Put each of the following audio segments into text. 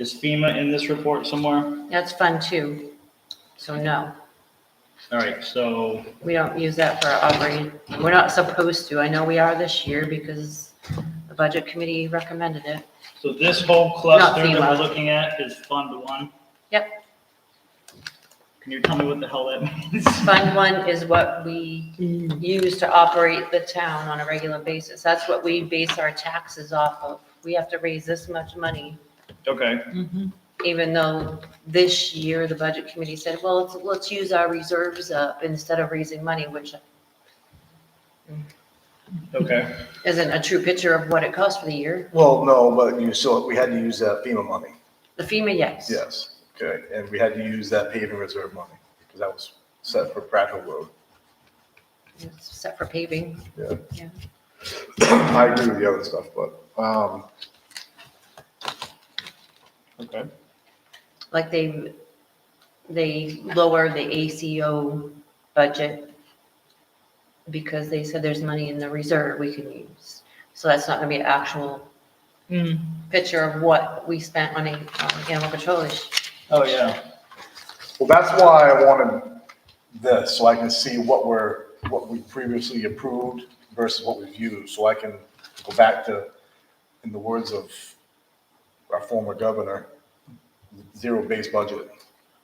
Is FEMA in this report somewhere? That's fund two. So no, All right, so, we don't use that for our operating. We're not supposed to. I know we are this year because the budget committee recommended it. so this whole cluster that FEMA. we're looking at is Fund One? Yep. Can you tell me what the hell that means? Fund one is what we use to operate the town on a regular basis. That's what we base our taxes off of. We have to raise this much money, Okay, even though this year the budget committee said, well, let's, let's use our reserves up instead of raising money, which okay, isn't a true picture of what it costs for the year. Well, no, but you still, we had to use that FEMA money, The FEMA, yes. yes, okay, and we had to use that paving reserve money, because that was set for Prattville Road. It's set for paving. Yeah. Yeah. I agree with the other stuff, but, um, okay. like they, they lower the ACO budget because they said there's money in the reserve we can use. So that's not gonna be an actual picture of what we spent on a, on animal control this Oh, yeah, well, that's why I wanted this, so I can see what we're, what we previously approved versus what we've used, so I can go back to, in the words of our former governor, zero-based budget.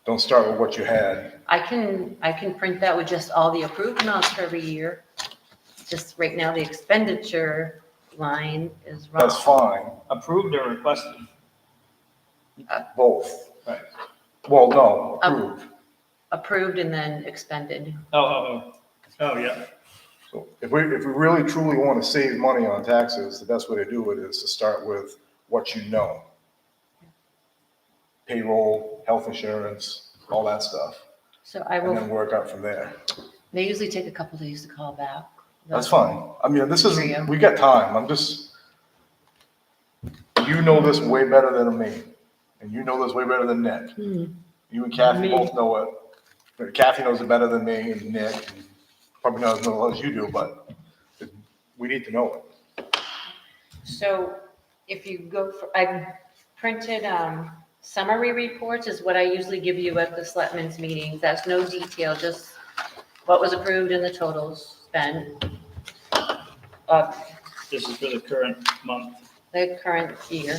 Don't start with what you had, I can, I can print that with just all the approved amounts for every year. Just right now, the expenditure line is wrong. that's fine, approved or requested? both. Right. Well, no, Um, approved. Approved and then expended. Oh, oh, oh, oh, yeah, So if we, if we really truly want to save money on taxes, the best way to do it is to start with what you know. Payroll, health insurance, all that stuff, So I and then will, work up from there. they usually take a couple days to call back. That's fine. I mean, this Here you isn't, go. we got time. I'm just, you know this way better than me, and you know this way better than Nick. You and Kathy both know it. But Kathy knows it better than me and Nick, and probably not as well as you do, but we need to know it. So if you go, for I printed um, summary reports is what I usually give you at the selectmen's meetings. That's no detail, just what was approved and the totals spent. Of this is for the current month, the current year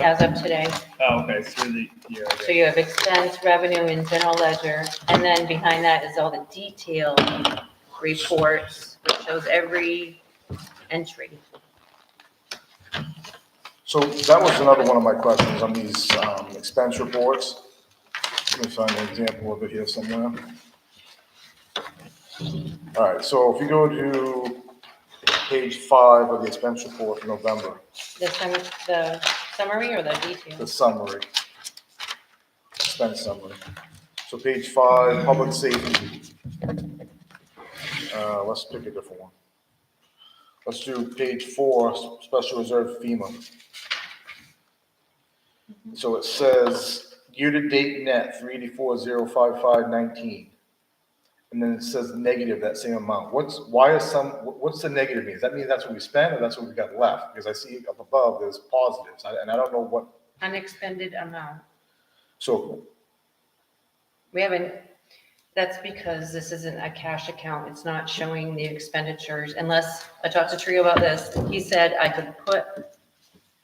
as of today. oh, okay, through the year, okay. So you have expense, revenue and general ledger. And then behind that is all the detailed reports, which shows every entry. So that was another one of my questions on these um, expense reports. Let me find an example of it here somewhere. All right, so if you go to page five of the expense report for November, The sum, the summary or the the detail? summary. Expense summary. So page five, public safety. Uh, Let's pick a different one. Let's do page four, s- special reserve FEMA. So it says year-to-date net three eighty-four zero five five nineteen. And then it says negative, that same amount. What's, why is some, wh- what's the negative mean? Does that mean that's what we spent or that's what we got left? Because I see up above there's positives I- and I don't know what Unexpended amount. so, We haven't, that's because this isn't a cash account. It's not showing the expenditures unless, I talked to Trio about this. He said I could put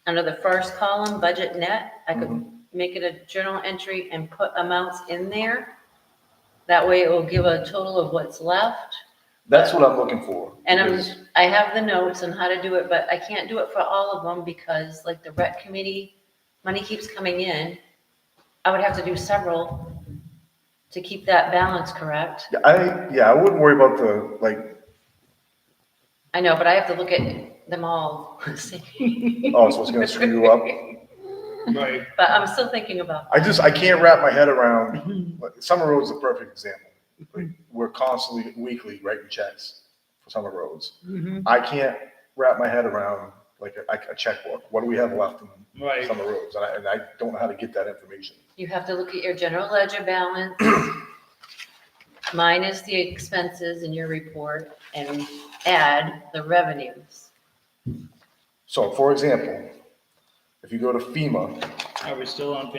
under the first column, budget net, I could make it a journal entry and put amounts in there. That way it will give a total of what's left. that's what I'm looking for. And I'm, is- I have the notes on how to do it, but I can't do it for all of them because like the rec committee, money keeps coming in. I would have to do several to keep that balance correct. Yeah, I, yeah, I wouldn't worry about the, like, I know, but I have to look at them all. oh, so it's gonna screw you up. Right, But I'm still thinking about, I just, I can't wrap my head Mm-hmm. around, like, Summer Road's a perfect example. Like, We're constantly, weekly writing checks for Summer Roads. Mm-hmm. I can't wrap my head around, like, a, like a checkbook. What do we have left in right. Summer Roads? And I, and I don't know how to get that information. you have to look at your general ledger balance minus the expenses in your report and add the revenues. So for example, if you go to FEMA, Are we still on page